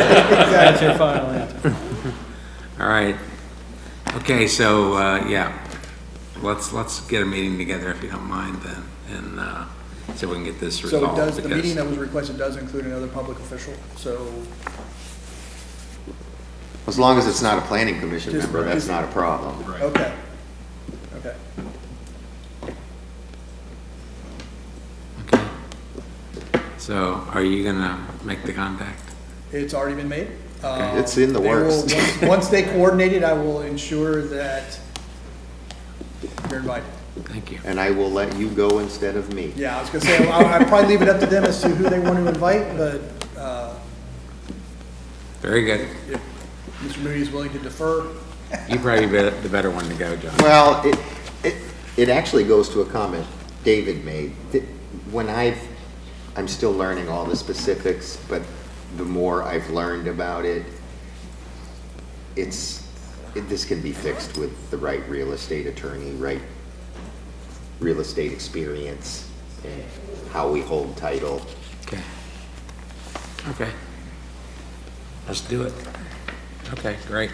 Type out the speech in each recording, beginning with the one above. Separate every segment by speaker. Speaker 1: That's your final answer.
Speaker 2: All right. Okay, so, uh, yeah, let's, let's get a meeting together if you don't mind then, and, uh, see if we can get this
Speaker 1: So it
Speaker 2: resolved.
Speaker 1: does, the meeting that
Speaker 2: because-
Speaker 1: was requested does include another public official, so
Speaker 3: As long as it's not a planning commission
Speaker 1: Just-
Speaker 3: member, that's not a problem.
Speaker 1: Okay. Okay.
Speaker 2: Okay. So are you gonna make the contact?
Speaker 1: It's already been made. Uh,
Speaker 3: It's in the
Speaker 1: they will-
Speaker 3: works.
Speaker 1: once- Once they coordinate it, I will ensure that you're invited.
Speaker 2: Thank you.
Speaker 3: And I will let you go instead of me.
Speaker 1: Yeah, I was gonna say, I- I'd probably leave it up to them as to who they want to invite, but uh,
Speaker 2: Very good.
Speaker 1: if Mr. Moody is willing to defer,
Speaker 2: You probably be the better one to go, John.
Speaker 3: Well, it, it, it actually goes to a comment David made. Th- When I've, I'm still learning all the specifics, but the more I've learned about it, it's, it- this can be fixed with the right real estate attorney, right real estate experience, and how we hold title.
Speaker 2: Okay. Okay. Let's do it. Okay, great.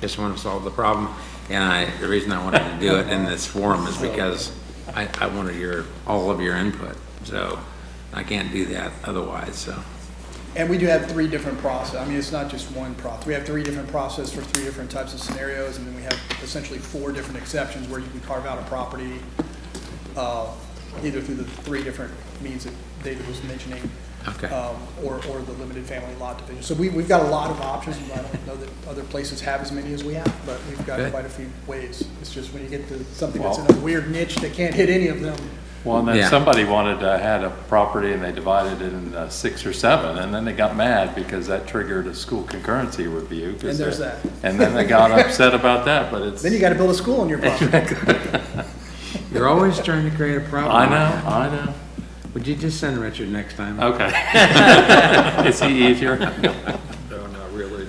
Speaker 2: Just want to solve the problem. And I, the reason I wanted to do it in this forum is because I, I wanted your, all of your input. So I can't do that otherwise, so.
Speaker 1: and we do have three different process, I mean, it's not just one process. We have three different process for three different types of scenarios, and then we have essentially four different exceptions where you can carve out a property, uh, either through the three different means that David was mentioning.
Speaker 2: Okay.
Speaker 1: um, Or, or the limited family lot division. So we, we've got a lot of options, and I don't know that other places have as many as we have, but we've got
Speaker 2: Good.
Speaker 1: quite a few ways. It's just when you get to something that's in a weird niche that can't hit any of them,
Speaker 4: Well, and
Speaker 2: Yeah.
Speaker 4: then somebody wanted, uh, had a property and they divided it into six or seven, and then they got mad because that triggered a school concurrency review. 'cause
Speaker 1: And there's
Speaker 4: they-
Speaker 1: that.
Speaker 4: And then they got upset about that, but it's,
Speaker 1: then you gotta build a school on your property.
Speaker 2: You're always trying to create a problem.
Speaker 4: I know, I know,
Speaker 2: Would you just send Richard next time?
Speaker 4: okay. Is he easier?
Speaker 2: No, not really.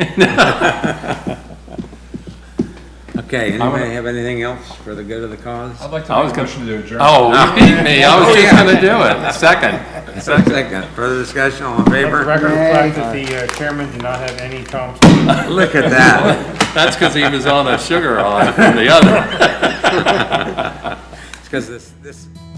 Speaker 2: Okay, anybody have anything else for the good of the cause?
Speaker 5: I'd like to
Speaker 4: I
Speaker 5: make
Speaker 4: was
Speaker 5: a
Speaker 4: gonna-
Speaker 5: motion to adjourn.
Speaker 4: Oh, you beat me, I was just gonna do it, second.
Speaker 2: Second, further discussion, all in
Speaker 6: Let the
Speaker 2: favor?
Speaker 6: record reflect that the uh, chairman did not have any comments.
Speaker 2: Look at that.
Speaker 4: That's because he was on a sugar high from the other.
Speaker 2: It's because this, this